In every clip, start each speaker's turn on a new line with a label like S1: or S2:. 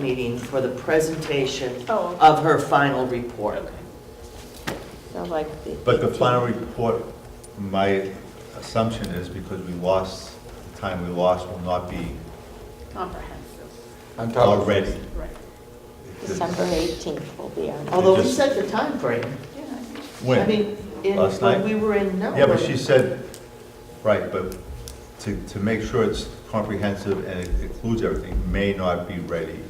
S1: meeting for the presentation
S2: Oh, okay.
S1: of her final report.
S2: So like the.
S3: But the final report, my assumption is because we lost, the time we lost will not be
S4: Comprehensive,
S5: On top of
S3: already.
S4: right.
S2: December 18th will be on.
S1: Although we
S3: just-
S1: set the time frame.
S4: Yeah, I think
S1: I
S3: When?
S1: mean, in-
S3: Last
S1: when
S3: night?
S1: we were in Nome.
S3: Yeah, but she said, right, but to, to make sure it's comprehensive and it includes everything, may not be ready.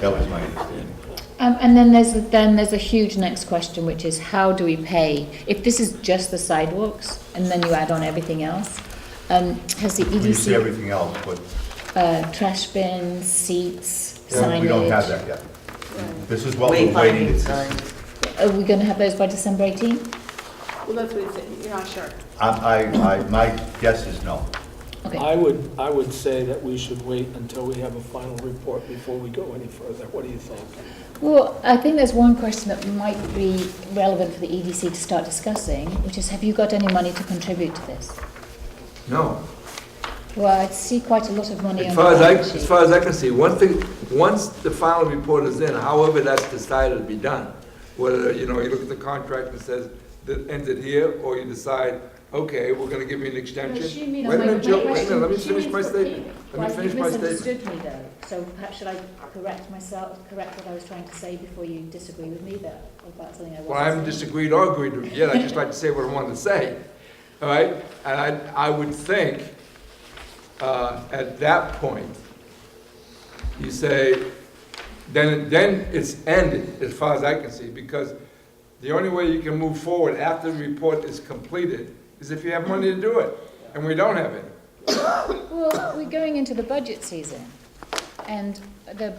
S3: That was my understanding.
S6: Um, and then there's, then there's a huge next question, which is how do we pay? If this is just the sidewalks, and then you add on everything else, um, has the
S3: We see
S6: EDC,
S3: everything else, but
S6: uh, trash bins, seats, signage?
S3: we don't have that yet. This is what we're waiting
S1: Wayfinding
S3: to
S1: signs.
S6: Are we gonna have those by December eighteenth?
S4: Well, that's what he said, you're not sure.
S3: I, I, I- my guess is no.
S6: Okay,
S7: I would, I would say that we should wait until we have a final report before we go any further. What do you think?
S6: well, I think there's one question that might be relevant for the EDC to start discussing, which is have you got any money to contribute to this?
S5: No.
S6: Well, I see quite a lot of money
S5: As
S6: on the
S5: far as I,
S6: balance
S5: as
S6: sheet.
S5: far as I can see, once the, once the final report is in, however that's decided to be done, whether, you know, you look at the contract and says, that ends it here, or you decide, okay, we're gonna give you an extension.
S6: she mean-
S5: Wait a
S6: my-
S5: minute,
S6: my
S5: Jill, wait a minute, let me
S6: question- she
S5: finish
S6: means
S5: my
S6: for
S5: statement.
S6: Well,
S5: Let me finish
S6: you
S5: my statement.
S6: misunderstood me though, so perhaps should I correct myself, correct what I was trying to say before you disagree with me there, about something I wasn't
S5: Well, I haven't
S6: saying?
S5: disagreed or agreed with it yet, I'd just like to say what I wanted to say, all right? And I, I would think, uh, at that point, you say, then, then it's ended, as far as I can see, because the only way you can move forward after the report is completed is if you have money to do it, and we don't have it.
S6: Well, we're going into the budget season, and the,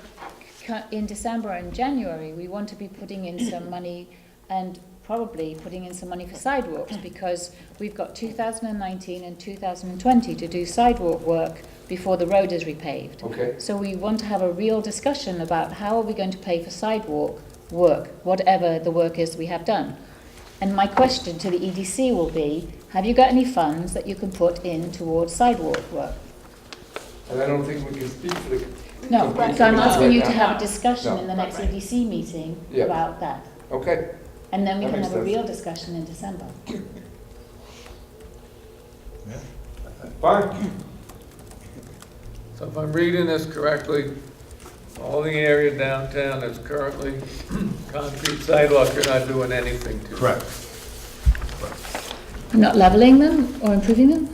S6: in December and January, we want to be putting in some money and probably putting in some money for sidewalks, because we've got two thousand and nineteen and two thousand and twenty to do sidewalk work before the road is repaved.
S5: Okay.
S6: So we want to have a real discussion about how are we going to pay for sidewalk work, whatever the work is we have done. And my question to the EDC will be, have you got any funds that you can put in towards sidewalk work?
S5: And I don't think we can speak for the,
S6: No,
S5: Right.
S6: so I'm asking you to
S5: Right.
S6: have a discussion in the
S4: No.
S6: next EDC meeting
S5: Yeah.
S6: about that.
S5: okay?
S6: And then we
S5: That
S6: can
S5: makes
S6: have a
S5: sense.
S6: real discussion in December.
S5: Fine.
S8: So if I'm reading this correctly, all the area downtown that's currently concrete sidewalk, you're not doing anything to.
S3: Correct.
S6: Not leveling them or improving them?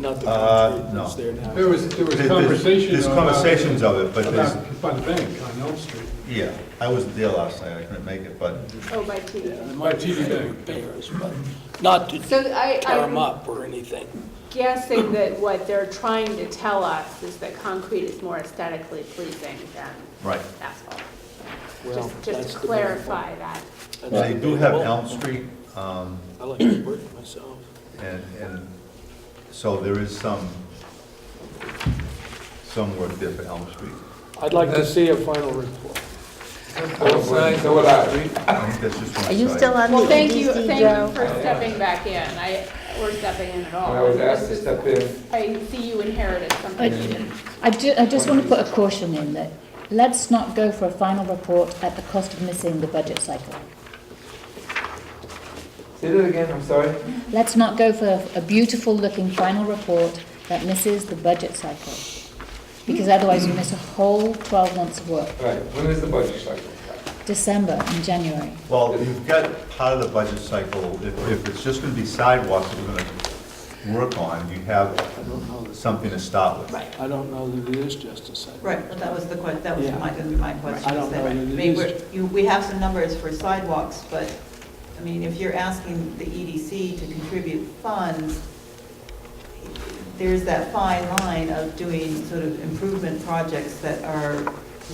S7: Not the
S3: Uh,
S7: concrete that's
S3: no.
S7: there now.
S9: There was, there was
S3: There's- there's-
S9: conversation.
S3: There's
S9: about-
S3: conversations of it, but there's,
S9: about- By the bank on Elm Street.
S3: yeah, I wasn't there last night, I couldn't make it, but
S4: Oh, by TV.
S9: By TV Bank.
S7: Bears, but not to
S4: So I,
S7: tear
S10: um,
S7: them
S4: I'm
S7: up or anything.
S4: guessing that what they're trying to tell us is that concrete is more aesthetically pleasing than
S3: Right.
S4: asphalt.
S7: Well,
S4: Just,
S7: that's
S4: just
S7: the
S4: to
S7: main
S4: clarify that.
S7: point.
S3: they do have
S7: Well,
S3: Elm Street, um,
S7: I like to work myself.
S3: and, and so there is some, some work there for Elm Street.
S7: I'd like to see a final report.
S5: Both sides of the street.
S3: I think that's just one
S2: Are you
S3: side.
S2: still on the
S4: Well, thank you,
S2: EDC,
S4: thank you
S2: Joe?
S4: for stepping back in. I, we're stepping in at all.
S5: When I was asked to
S4: This is-
S5: step in,
S4: I see you inherited something. you didn't.
S6: I ju, I just want to put a caution in that, let's not go for a final report at the cost of missing the budget cycle.
S5: say that again, I'm sorry?
S6: Let's not go for a beautiful looking final report that misses the budget cycle. Because otherwise you miss a whole twelve months of work,
S5: Right, when is the budget cycle?
S6: December and January.
S3: Well, you've got part of the budget cycle, if, if it's just gonna be sidewalks that we're gonna work on, you
S7: I
S3: have
S7: don't know, that-
S3: something to start with.
S1: Right,
S7: I don't know that it is just a site.
S10: Right, well, that was the que, that was
S7: Yeah.
S10: my, gonna be my question.
S7: I don't
S10: is that-
S7: know
S10: I
S7: that it
S10: mean,
S7: is-
S10: we're- you- we have some numbers for sidewalks, but, I mean, if you're asking the EDC to contribute funds, there's that fine line of doing sort of improvement projects that are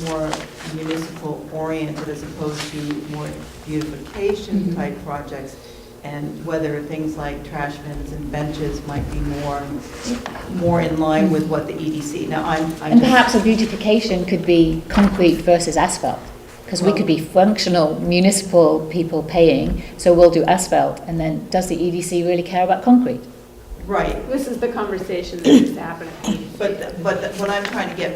S10: more municipal oriented as opposed to more beautification type projects, and whether things like trash bins and benches might be more, more in line with what the EDC, now I'm, I'm
S6: And
S10: just.
S6: perhaps a beautification could be concrete versus asphalt, because we could be functional municipal people paying, so we'll do asphalt, and then E does the EDC really care about concrete?
S10: Right,
S4: This is the conversation that needs to happen at the EDC.
S1: But, but what I'm trying to get